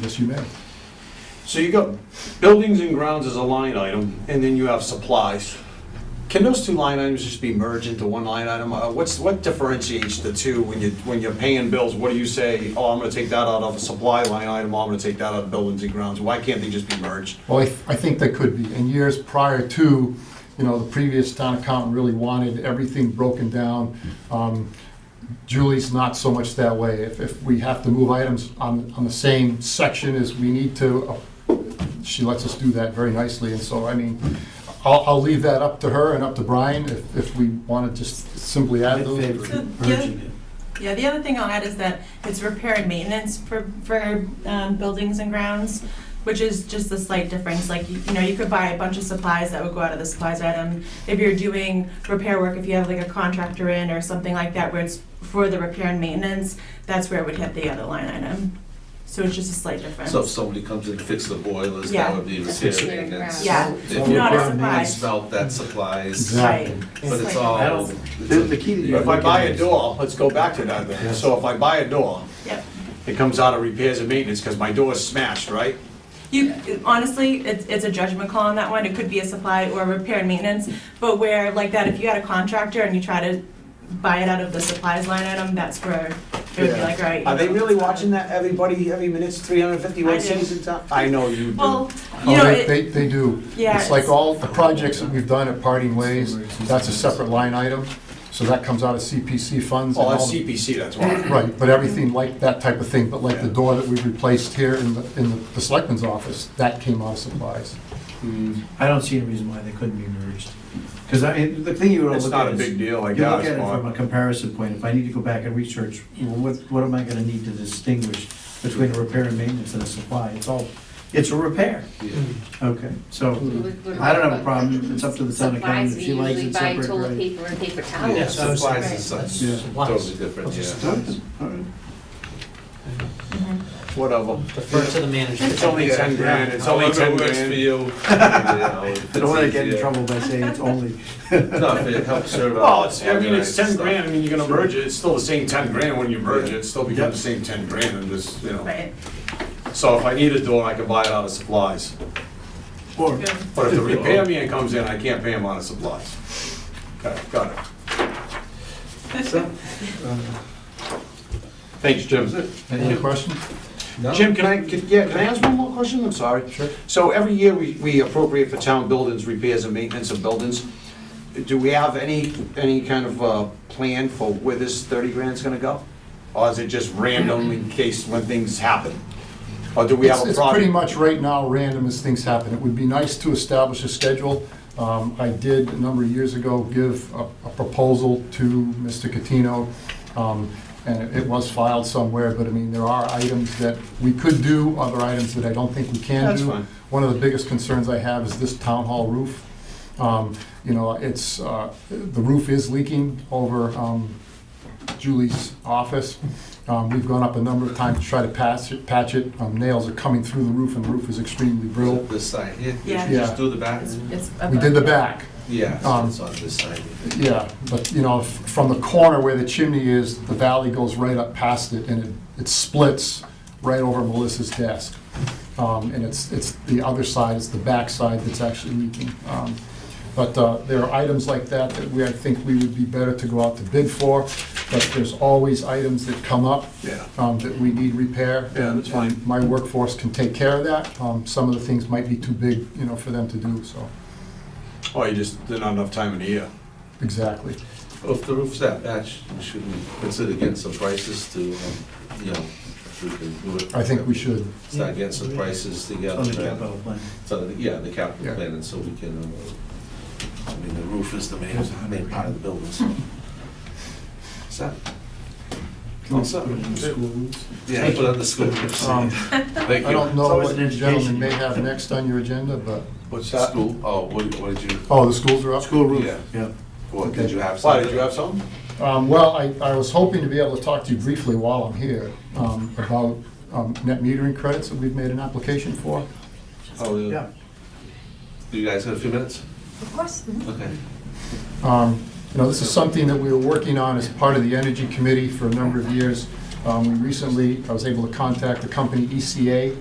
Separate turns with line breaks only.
Yes, you may.
So you got buildings and grounds as a line item, and then you have supplies. Can those two line items just be merged into one line item? Uh, What's, what differentiates the two when you, when you're paying bills? What do you say, oh, I'm gonna take that out of a supply line item, I'm gonna take that out of buildings and grounds? Why can't they just be merged?
Well, I, th- I think that could be. In years prior to, you know, the previous town accountant really wanted everything broken down. Um, Julie's not so much that way. If, if we have to move items on, on the same section as we need to, uh, she lets us do that very nicely. And so, I mean, I'll, I'll leave that up to her and up to Brian if, if we want to just simply add those.
Yeah, the other thing I'll add is that it's repair and maintenance for, for um, buildings and grounds, which is just a slight difference. Like, you you know, you could buy a bunch of supplies that would go out of the supplies item. If you're doing repair work, if you have like a contractor in or something like that where it's for the repair and maintenance, that's where it would hit the other line item. So it's just a slight difference.
So if somebody comes and fixes the boilers,
Yeah.
that would be repair and maintenance.
Yeah.
If
Not a
you
surprise.
smelt, that supplies,
Exactly.
Right.
but it's
Slight.
I
all.
don't- The, the key that you.
If I buy a door, let's go back to that then. So if I buy a door,
Yep.
it comes out of repairs and maintenance, because my door is smashed, right?
You, honestly, it's, it's a judgment call on that one, it could be a supply or repair and maintenance, but where, like that, if you had a contractor and you try to buy it out of the supplies line item, that's where it would be like, all right.
Are they really watching that, everybody, every minute's 351
I do.
days in time? I know you do.
Well, you
Oh,
know,
they,
it,
they, they do.
Yeah,
It's like
it's-
all the projects that we've done at Parting Ways, that's a separate line item, so that comes out of CPC funds. and
Oh, that's
all the-
CPC, that's why.
Right, but everything like that type of thing, but like the door that we replaced here in the, in the- the selectman's office, that came out of supplies.
I don't see any reason why they couldn't be merged. Because I, the thing you want
It's
to look
not
at
a
is.
big deal, I
You look
guess.
at it
Mark.
from a comparison point, if I need to go back and research, well, what, what am I gonna need to distinguish between a repair and maintenance and a supply? It's all, it's a repair. Okay, so, I don't have a problem, it's up to the town accountant, if she likes it separate,
Supplies, we usually buy toilet
right?
paper and paper
Oh,
towels.
Yeah,
so it's-
supplies is such,
Yeah.
totally different, yeah.
Okay, all right.
Whatever.
Defer to the manager.
It's only
Yeah,
10 grand, it's only
However
10
it works for
grand.
you. I
I don't wanna get in trouble by saying it's only,
No, if it helps serve.
Well, it's, I mean, it's
organized
ten
stuff.
grand, I mean, you're gonna merge it, it's still the same ten grand when you merge it,
Yeah.
it's still becomes the same ten grand, and just, you know.
right,
So if I need a door, I can buy it out of supplies,
or,
good.
but if the repair man comes in, I can't pay him out of supplies. Okay, got it. Thanks, Jim.
Any questions?
No?
Jim, can I, can- yeah, can I ask one more question? I'm sorry.
Sure.
So every year, we we appropriate for town buildings, repairs and maintenance of buildings. Do we have any, any kind of uh, plan for where this 30 grand's gonna go? Or is it just random in case when things happen? Or do we have
It's
a
it's pretty much
project?
right now random as things happen. It would be nice to establish a schedule. Um, I did, a number of years ago, give a a proposal to Mr. Catino, um, and it- it was filed somewhere, but I mean, there are items that we could do, other items that I don't think we can do.
That's fine.
One of the biggest concerns I have is this town hall roof. Um, You know, it's, uh, the roof is leaking over um, Julie's office. Um, We've gone up a number of times to try to patch it, patch it. Um, Nails are coming through the roof, and the roof is extremely brittle.
This side here, you
Yeah.
should just
Yeah.
do the back.
It's- it's
We
above.
did the back,
Yeah,
Um,
it's on this side.
yeah, but, you know, f- from the corner where the chimney is, the valley goes right up past it, and it, it splits right over Melissa's desk. Um, and it's, it's the other side, it's the back side that's actually leaking. Um, but, uh, there are items like that that we, I think we would be better to go out to bid for, but there's always items that come up.
Yeah.
um, that we need repair.
Yeah, that's fine.
And My workforce can take care of that. Um, Some of the things might be too big, you know, for them to do, so,
Or Oh, you just, there's not enough time in the year?
exactly.
Well, If the roof's that bad, sh- should we consider getting some prices to, um, you know, if we can do it?
I think we should.
Start getting some prices
it's
together.
on the
and-
capital plan.
So, the- yeah, the
Yeah.
capital plan, and so we can, um, I mean, the roof is the main, main part of the building, so. So,
Can we
Also-
put it in the school rules?
yeah, put on the school.
Um,
Thank
I don't know
always
what
an
you gentlemen
education.
may have next on your agenda, but,
What's
School, oh, what, what did you,
oh, the schools are up?
School roof,
Yeah.
yeah.
or did you have
Why,
something?
did you have something?
Um, Well, I, I was hoping to be able to talk to you briefly while I'm here um, about um, net metering credits that we've made an application for.
Oh,
Yeah.
Do you guys have a few minutes?
Of course.
Okay.
Um, You know, this is something that we were working on as part of the Energy Committee for a number of years. Um, We recently, I was able to contact the company ECA,